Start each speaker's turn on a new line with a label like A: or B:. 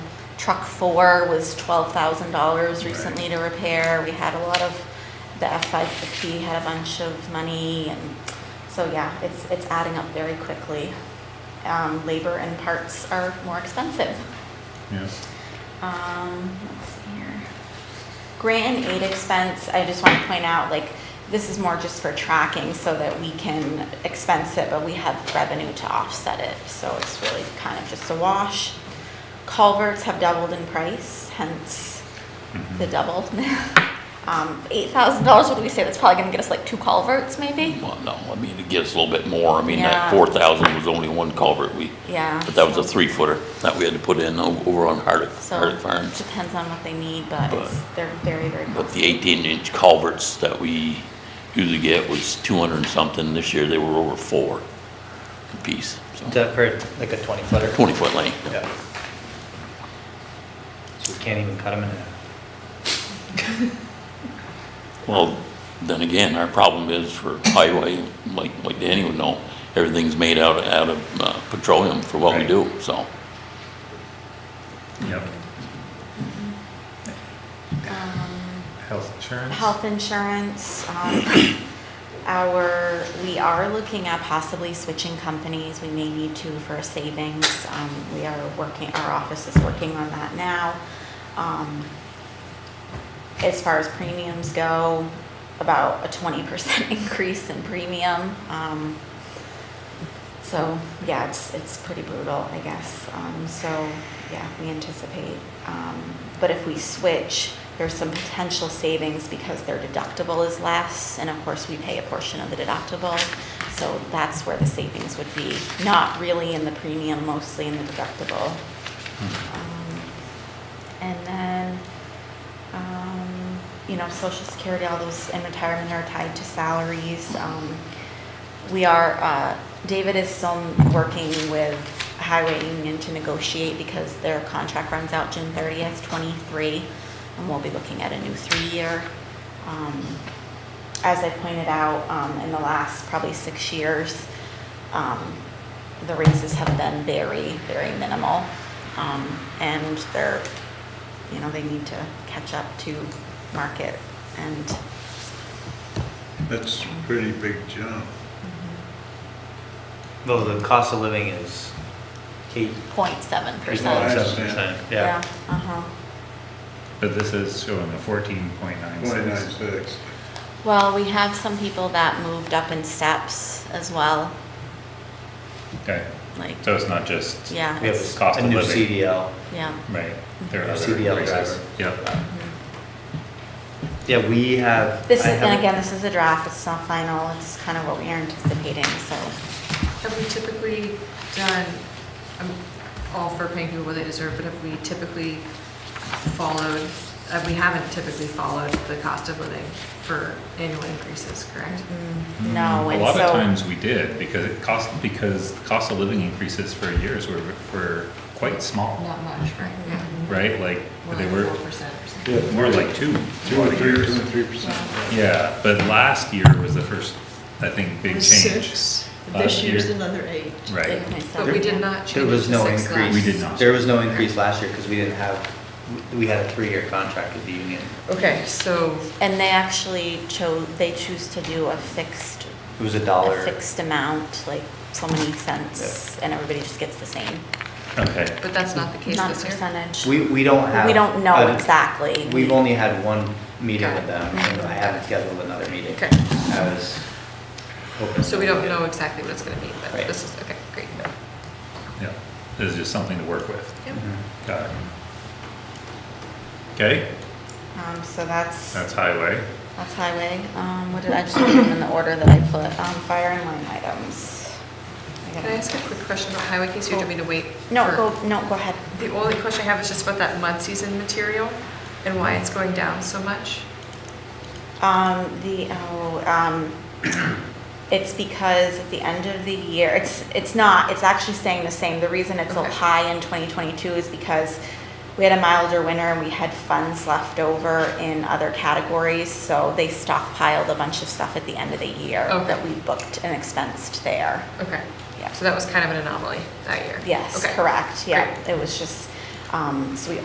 A: Truck four was twelve thousand dollars recently to repair. We had a lot of, the F five fifty had a bunch of money and, so yeah, it's, it's adding up very quickly. Um, labor and parts are more expensive.
B: Yeah.
A: Um, let's see here. Grant and aid expense, I just want to point out, like, this is more just for tracking so that we can expense it, but we have revenue to offset it, so it's really kind of just a wash. Culverts have doubled in price, hence the
C: Mm-hmm.
A: double. Um, eight thousand dollars, what do we say, that's probably gonna get us like two culverts, maybe?
C: Well, no, I mean, it gives a little bit more. I mean,
A: Yeah.
C: that four thousand was only one culvert we,
A: Yeah.
C: but that was a
A: so-
C: three footer that we had to put in o- over on Hardwick,
A: So,
C: Hardwick
A: it
C: Farms.
A: depends on what they need, but it's, they're very, very
C: But
A: costly.
C: the eighteen inch culverts that we usually get was two hundred and something. This year, they were over four apiece,
D: Is
C: so
D: that for like a 20 footer?
C: twenty foot length.
D: Yeah. So we can't even cut them in half.
C: Well, then again, our problem is for highway, like, like Danny would know, everything's made out, of- out of uh, petroleum for what we
D: Right.
C: do, so.
B: Yep.
A: Um,
B: Health insurance?
A: Health insurance, um, our, we are looking at possibly switching companies, we may need to for savings. Um, we are working, our office is working on that now. Um, as far as premiums go, about a twenty percent increase in premium. Um, so, yeah, it's, it's pretty brutal, I guess. Um, so, yeah, we anticipate. Um, but if we switch, there's some potential savings because their deductible is less, and of course, we pay a portion of the deductible. So that's where the savings would be, not really in the premium, mostly in the deductible. Um, And then, um, you know, social security, all those in retirement are tied to salaries. Um, we are, uh, David is still working with Highway Union to negotiate because their contract runs out June thirtieth, twenty-three, and we'll be looking at a new three-year. Um, As I pointed out, um, in the last probably six years, um, the raises have been very, very minimal. Um, and they're, you know, they need to catch up to market and
E: That's a pretty big jump.
D: Well, the cost of living is eight,
A: point seven
E: Right.
A: percent.
D: 7%. Yeah.
A: Uh-huh.
B: But this is showing a fourteen point nine
E: Point nine
B: six.
E: six.
A: Well, we have some people that moved up in steps as well,
B: Okay,
A: like,
B: so it's not just,
A: yeah,
D: We have
A: it's,
B: Cost
D: a
B: of
D: new
B: living.
D: CDL.
A: yeah.
B: right, there are
D: Your
B: other
D: CDL
B: races.
D: driver.
B: Yep,
D: Yeah, we have.
A: This is,
D: I
A: and
D: haven't-
A: again, this is a draft, it's not final, it's kind of what we are anticipating, so.
F: Have we typically done, I'm all for paying people what they deserve, but have we typically followed, uh, we haven't typically followed the cost of living for annual increases, correct?
A: No,
B: a
A: Oh, and
B: lot of
A: so-
B: times we did, because it cost, because the cost of living increases for years were, were quite small,
F: Not much, right? Yeah.
B: right? Like,
F: More
B: they
F: like
B: were
F: Four percent or something.
E: Yeah,
B: more like two,
E: Two or
B: two
E: three,
B: years.
E: two or three percent.
B: Yeah, but last year was the first, I think, big change.
G: Six.
B: Last
G: This year's
B: year.
G: another eight.
B: Right,
A: Okay, so-
F: But we did
D: There
F: not change it to
D: was no
F: six
D: increase.
F: last.
B: We did not.
D: There was no increase last year because we didn't have, we- we had a three-year contract with the union.
F: Okay, so,
A: And they actually chose, they choose to do a fixed,
D: It was a
A: a
D: dollar.
A: fixed amount, like so many cents, and everybody just gets the same.
B: okay.
F: but that's not the case
A: Not a
F: this year?
A: percentage.
D: We, we don't have.
A: We don't know
D: a-
A: exactly.
D: We've only had one meeting
F: Got
D: with
F: it.
D: them, and I haven't scheduled another meeting.
F: Okay.
D: I was hoping.
F: So we don't know exactly what it's gonna be, but
D: Right.
F: this is, okay, great.
B: Yeah, this is just something to work with.
F: Yep.
D: Mhm.
B: Got it. Okay,
A: Um, so that's,
B: that's highway.
A: that's highway. Um, what did, I just put them in the order that I put, um, fire and line items. I
F: Can
A: gotta-
F: I ask a quick question about highway case? You don't mean to wait?
A: No,
F: for-
A: go, no, go ahead.
F: The only question I have is just about that mud season material and why it's going down so much.
A: Um, the, oh, um, it's because at the end of the year, it's, it's not, it's actually staying the same. The reason it's so
F: Okay.
A: high in 2022 is because we had a milder winter and we had funds left over in other categories, so they stockpiled a bunch of stuff at the end of the year
F: Okay.
A: that we booked and expensed there.
F: Okay.
A: Yeah.
F: So that was kind of an anomaly that year?
A: Yes,
F: Okay.
A: correct, yeah.
F: Great.
A: It was just, um, so we